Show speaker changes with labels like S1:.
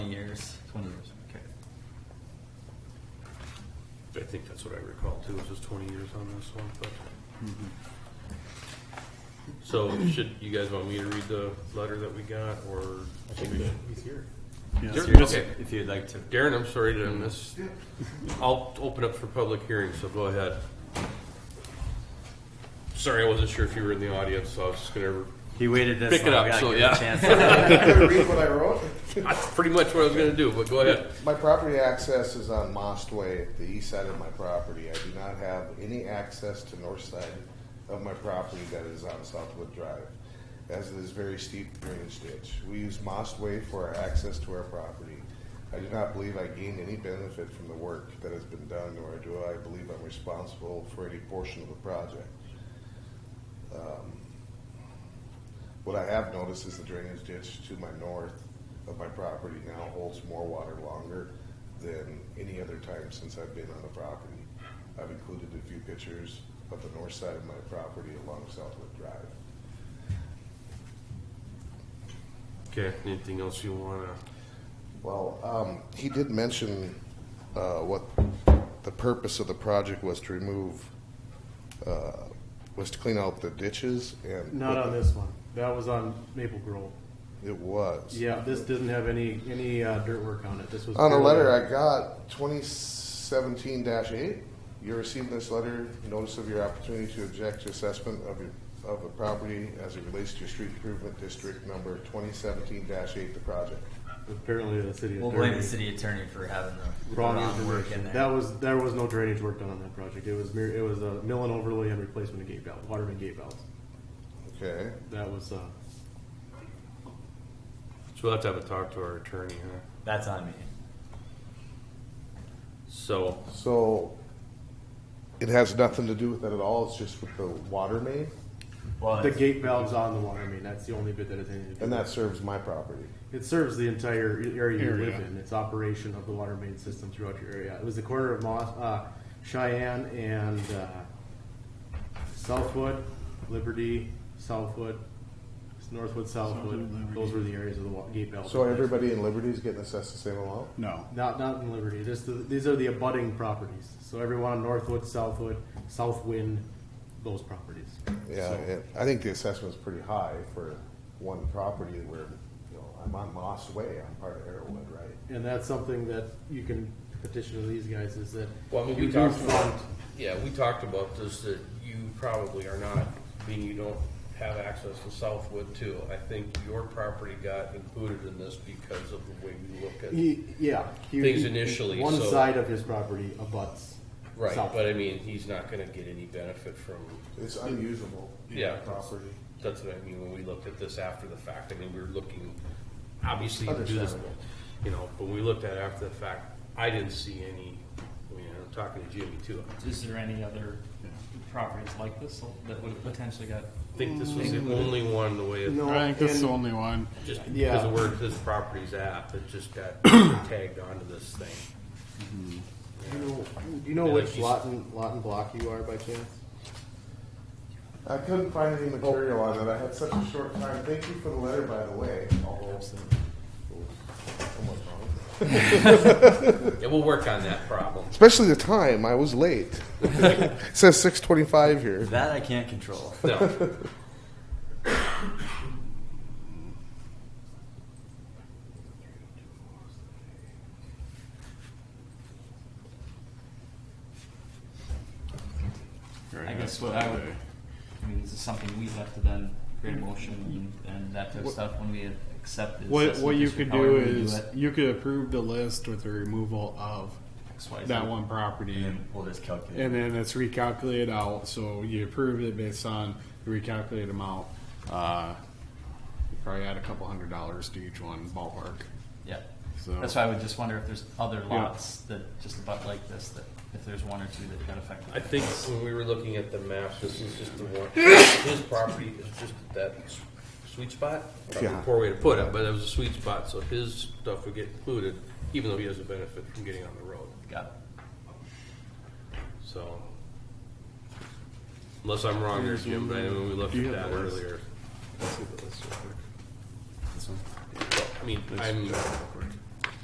S1: I think that's what I recall too, is just twenty years on this one, but. Mm-hmm. So should, you guys want me to read the letter that we got, or?
S2: I think that he's here.
S3: Yeah.
S1: Sure,
S3: Just-
S1: okay.
S3: If you'd like to.
S1: Darren, I'm sorry to miss, I'll open up for public hearing, so go ahead. Sorry, I wasn't sure if you were in the audience, so I was just gonna,
S3: He waited this
S1: Pick it
S3: long,
S1: up,
S3: we gotta
S1: so,
S3: give him a
S1: yeah.
S3: chance.
S4: Read what I wrote.
S1: that's pretty much what I was gonna do, but go ahead.
S4: My property access is on Most Way at the east side of my property. I do not have any access to north side of my property that is on Southwood Drive, as it is very steep drainage ditch. We use Most Way for our access to our property. I do not believe I gained any benefit from the work that has been done, nor do I believe I'm responsible for any portion of the project. What I have noticed is the drainage ditch to my north of my property now holds more water longer than any other time since I've been on the property. I've included a few pictures of the north side of my property along Southwood Drive.
S1: Okay, anything else you wanna,
S4: Well, um, he did mention, uh, what the purpose of the project was to remove, uh, was to clean out the ditches and.
S2: Not on this one. That was on Maple Grove.
S4: It was.
S2: Yeah, this didn't have any, any uh, dirt work on it. This was.
S4: On a
S2: purely-
S4: letter I got, twenty seventeen eight, you received this letter, notice of your opportunity to object to assessment of your, of a property as it relates to your street improvement district number twenty seventeen eight, the project.
S2: Apparently the city.
S5: We'll blame the city attorney for having the
S2: Wrong
S5: wrong work in
S2: information.
S5: there.
S2: That was, there was no drainage work done on that project. It was mere, it was a mill and overlay and replacement of gate valve, water main gate valves.
S4: Okay,
S2: That was, uh,
S1: so we'll have to have a talk to our attorney, huh?
S5: That's on me.
S1: So,
S4: so it has nothing to do with that at all, it's just with the water main,
S5: Well,
S2: the
S5: it's-
S2: gate valves on the water main, that's the only bit that it had anything to do
S4: and
S2: with
S4: that serves my property.
S2: It serves the entire e-, area you live
S3: Area.
S2: in. It's operation of the water main system throughout your area. It was the corner of Moss, uh, Cheyenne and uh, Southwood, Liberty, Southwood, Northwood, Southwood.
S3: Southwood,
S2: Those were the areas of the wa- gate valve.
S4: So everybody in Liberty is getting assessed the same amount?
S3: No.
S2: Not not in Liberty. This the, these are the abutting properties. So everyone on Northwood, Southwood, Southwind, those properties.
S4: Yeah, it- I think the assessment's pretty high for one property where, you know, I'm on Moss Way, I'm part of Arrowwood, right?
S2: And that's something that you can petition to these guys is that
S1: well, I mean,
S2: you
S1: we
S2: do
S1: talked
S2: fund-
S1: about, yeah, we talked about this, that you probably are not, being you don't have access to Southwood too. I think your property got included in this because of the way we look at
S2: He, yeah. he-
S1: Things
S2: he-
S1: initially,
S2: One
S1: so-
S2: side of his property abuts.
S1: Right,
S2: south.
S1: but I mean, he's not gonna get any benefit from,
S4: It's unusable.
S1: Yeah.
S4: Property.
S1: that's what I mean, when we looked at this after the fact, I mean, we were looking, obviously, to do this,
S4: Understandable.
S1: you know, but when we looked at it after the fact, I didn't see any, I mean, I'm talking to Jimmy too,
S6: Is there any other properties like this that would have potentially got?
S1: I think this was the only one, the way it
S2: No,
S3: I think this is the
S2: and
S3: only one.
S1: just
S2: Yeah.
S1: because of where this property's at, it just got tagged onto this thing.
S2: do you know- Do you know
S1: Yeah,
S2: which
S1: she's-
S2: lot and, lot and block you are by chance?
S4: I couldn't find any material on it. I had such a short time. Thank you for the letter, by the way. Although, Almost wrong.
S1: Yeah, we'll work on that problem.
S4: Especially the time. I was late. it says six twenty-five here.
S5: That I can't control.
S1: No.
S6: I guess what I would, I mean, this is something we have to then create a motion and, and that type of stuff when we accept this.
S3: What, what you could do is you could approve the list with the removal of that one property,
S5: And we'll just calculate.
S3: and then it's recalculated out. So you approve it based on the recalculated amount. Uh, you probably add a couple hundred dollars to each one ballpark.
S6: Yeah.
S3: So-
S6: That's why I would just wonder if there's other lots that just about like this, that if there's one or two that got affected.
S1: I think when we were looking at the map, this is just the one, his property is just that s- sweet spot. Probably a
S4: Yeah.
S1: Poor way to put it, but it was a sweet spot, so his stuff would get included, even though he doesn't benefit from getting on the road,
S6: Got it.
S1: so. Unless I'm wrong here, Jim, but I know when we looked
S3: Do you
S1: at
S3: have
S1: that
S3: the list?
S1: earlier.
S3: This one.
S1: I mean, I'm,